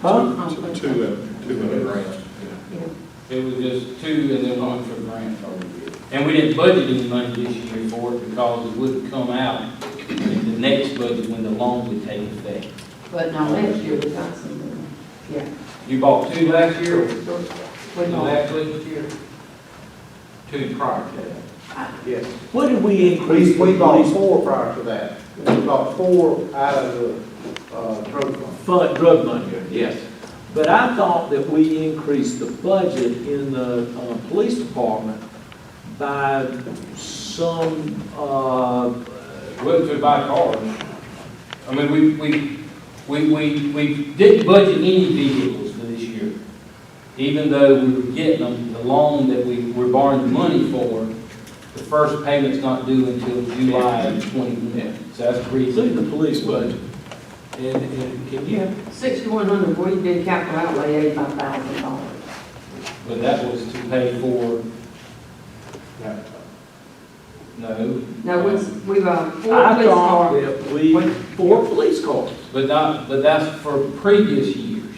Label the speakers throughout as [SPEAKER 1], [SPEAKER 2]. [SPEAKER 1] Huh?
[SPEAKER 2] Two, two,
[SPEAKER 3] uh,
[SPEAKER 2] and- two and a grant.
[SPEAKER 4] It was just two and then one for grant program. And we didn't budget any money this year for it because it wouldn't come out in the next budget when the loan would take effect.
[SPEAKER 5] But now last year we got some, money. yeah.
[SPEAKER 4] You bought two last year? or
[SPEAKER 5] But
[SPEAKER 4] No,
[SPEAKER 5] no,
[SPEAKER 4] last year. Two prior to that.
[SPEAKER 6] Yes,
[SPEAKER 1] What did we increase?
[SPEAKER 6] we
[SPEAKER 1] the
[SPEAKER 6] bought
[SPEAKER 1] police
[SPEAKER 6] four prior to that. We bought four out of the, uh, drug fund.
[SPEAKER 1] Fund, drug money.
[SPEAKER 6] Yes.
[SPEAKER 1] But I thought that we increased the budget in the, uh, police department by some, uh,
[SPEAKER 4] Wasn't to buy cars. I mean, we, we, we, we, we didn't budget any vehicles for this year. Even though we were getting them, the loan that we were borrowing the money for, the first payment's not due until July of twenty, so that's pretty soon.
[SPEAKER 1] including the police budget. And, and can you,
[SPEAKER 5] sixty-one hundred, we did capital outlay eighty-five thousand dollars.
[SPEAKER 4] But that was to pay for, no.
[SPEAKER 5] Now, we, we got four
[SPEAKER 1] I
[SPEAKER 5] police
[SPEAKER 1] thought
[SPEAKER 5] cars.
[SPEAKER 1] that we, four police cars.
[SPEAKER 4] But not, but that's for previous years,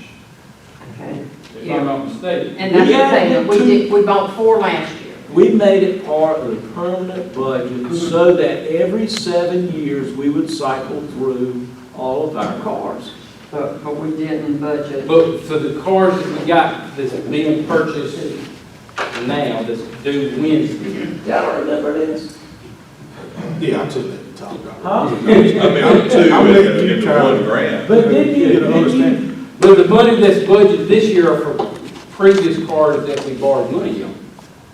[SPEAKER 5] Okay.
[SPEAKER 4] if I'm not mistaken.
[SPEAKER 5] And that's
[SPEAKER 1] We
[SPEAKER 5] the thing,
[SPEAKER 1] added
[SPEAKER 5] that we
[SPEAKER 1] two-
[SPEAKER 5] did, we bought four last year.
[SPEAKER 1] We made it part of the permanent
[SPEAKER 3] Mm-hmm.
[SPEAKER 1] budget so that every seven years, we would cycle through all of our cars.
[SPEAKER 5] But, but we didn't budget.
[SPEAKER 4] But for the cars that we got that's being purchased now, that's due Wednesday,
[SPEAKER 1] Y'all remember this?
[SPEAKER 3] Yeah, I took that to top dollar.
[SPEAKER 1] Huh?
[SPEAKER 2] I mean, I'm two
[SPEAKER 6] I'm
[SPEAKER 2] and,
[SPEAKER 6] with you,
[SPEAKER 2] and
[SPEAKER 6] Charlie.
[SPEAKER 2] one grant.
[SPEAKER 1] But didn't you,
[SPEAKER 6] You know,
[SPEAKER 1] didn't you,
[SPEAKER 6] understand.
[SPEAKER 4] but the money that's budgeted this year are for previous cars that we borrowed money on.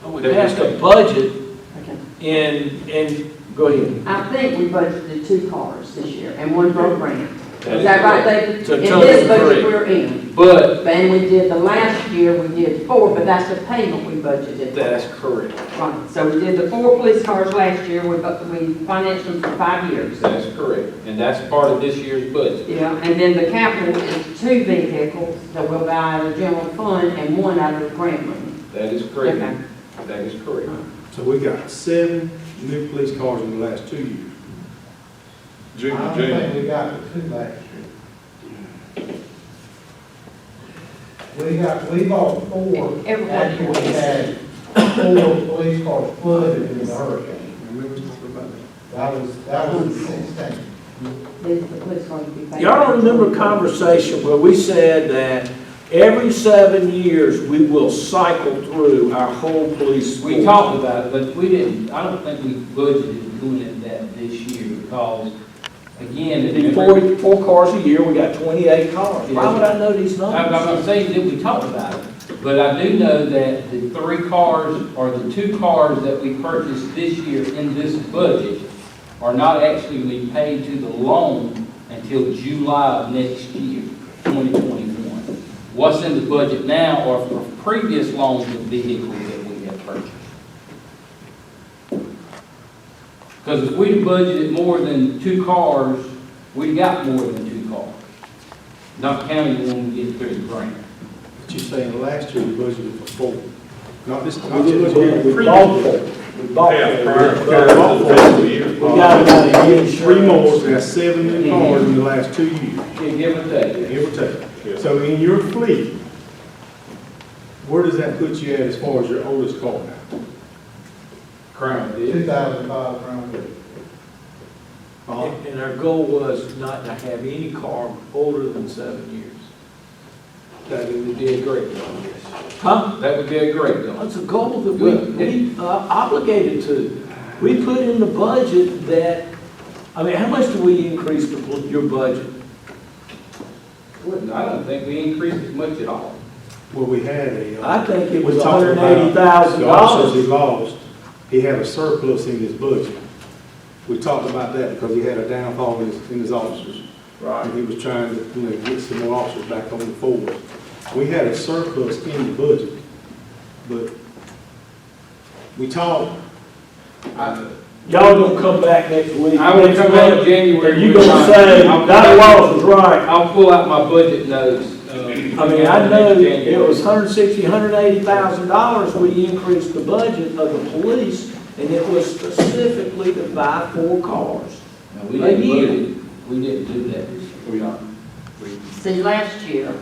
[SPEAKER 1] oh, we passed a budget
[SPEAKER 5] Okay.
[SPEAKER 1] and, and, go ahead.
[SPEAKER 5] I think we budgeted two cars this year and one broke grant. Is that right, David?
[SPEAKER 1] So
[SPEAKER 5] In
[SPEAKER 1] total
[SPEAKER 5] this budget
[SPEAKER 1] three.
[SPEAKER 5] we're in.
[SPEAKER 4] But
[SPEAKER 5] And we did the last year, we did four, but that's the payment we budgeted.
[SPEAKER 4] that's correct,
[SPEAKER 5] Right, so we did the four police cars last year, we, bu- we financed them for five years.
[SPEAKER 4] that's correct, and that's part of this year's budget.
[SPEAKER 5] Yeah, and then the capital is two vehicles that we'll buy out of the general fund and one out of the grant money.
[SPEAKER 4] That is
[SPEAKER 5] Okay.
[SPEAKER 4] correct, that is correct.
[SPEAKER 3] So we got seven new police cars in the last two years.
[SPEAKER 6] I
[SPEAKER 2] Junior,
[SPEAKER 6] don't
[SPEAKER 2] junior.
[SPEAKER 6] think we got the two last year. We got, we bought four
[SPEAKER 5] Everybody
[SPEAKER 6] after we
[SPEAKER 5] wants.
[SPEAKER 6] had four police cars flooded in the hurricane.
[SPEAKER 3] Remember talking about that?
[SPEAKER 6] That was, that was the sixteen.
[SPEAKER 5] The the police cars will be paid.
[SPEAKER 1] Y'all remember a conversation where we said that every seven years, we will cycle through our whole police force?
[SPEAKER 4] We talked about it, but we didn't, I don't think we budgeted doing it that this year because, again,
[SPEAKER 1] We did
[SPEAKER 4] it-
[SPEAKER 1] four, four cars a year, we got twenty-eight cars. Why
[SPEAKER 4] Yeah.
[SPEAKER 1] would I know these
[SPEAKER 4] I'm I'm
[SPEAKER 1] numbers?
[SPEAKER 4] not saying that we talked about it, but I do know that the three cars or the two cars that we purchased this year in this budget are not actually paid to the loan until July of next year, 2021. What's in the budget now are for previous loans of vehicles that we have purchased. Because if we'd budgeted more than two cars, we got more than two cars. Not counting when we get through the grant.
[SPEAKER 3] But you're saying last year we budgeted for four, not this. not
[SPEAKER 1] We
[SPEAKER 3] this
[SPEAKER 1] didn't,
[SPEAKER 3] year,
[SPEAKER 1] we- we bought four, we bought
[SPEAKER 2] Yeah, prior,
[SPEAKER 1] four.
[SPEAKER 2] prior to the fiscal year.
[SPEAKER 1] We got about a year.
[SPEAKER 3] Three more, we got seven new cars in the last two years,
[SPEAKER 4] Yeah, give or take.
[SPEAKER 3] give or take. So in your fleet, where does that put you at as far as your oldest car now?
[SPEAKER 4] Crown
[SPEAKER 6] Two
[SPEAKER 4] did.
[SPEAKER 6] thousand five Crown Vic.
[SPEAKER 4] Uh,
[SPEAKER 3] Huh?
[SPEAKER 1] And our goal was not to have any car older than seven years.
[SPEAKER 4] That would be a great deal, yes.
[SPEAKER 1] Huh?
[SPEAKER 4] That would be a great deal.
[SPEAKER 1] That's a goal that we, we uh, obligated to. We put in the budget that, I mean, how much do we increase the, bu- your budget?
[SPEAKER 4] I don't think we increased as much at all.
[SPEAKER 3] Well, we had a. uh,
[SPEAKER 1] I think it was
[SPEAKER 3] we talked
[SPEAKER 1] hundred
[SPEAKER 3] about
[SPEAKER 1] and eighty thousand
[SPEAKER 3] The officers he
[SPEAKER 1] dollars.
[SPEAKER 3] lost, he had a surplus in his budget. We talked about that because he had a downfall in his, in his officers. And he was trying to, you know, get some more officers back on the force. We had a surplus in the budget, but we talked,
[SPEAKER 4] I
[SPEAKER 1] Y'all gonna come back next week.
[SPEAKER 4] I will come back in January.
[SPEAKER 1] And you gonna say,
[SPEAKER 4] I'll-
[SPEAKER 1] that law was right.
[SPEAKER 4] I'll pull out my budget notes. uh, I
[SPEAKER 1] I mean, I know it was hundred sixty, hundred eighty thousand dollars we increased the budget of the police, and it was specifically to buy four cars.
[SPEAKER 4] We
[SPEAKER 1] a
[SPEAKER 4] didn't
[SPEAKER 1] year.
[SPEAKER 4] budget, we didn't do that this year. We not.
[SPEAKER 5] See, last year,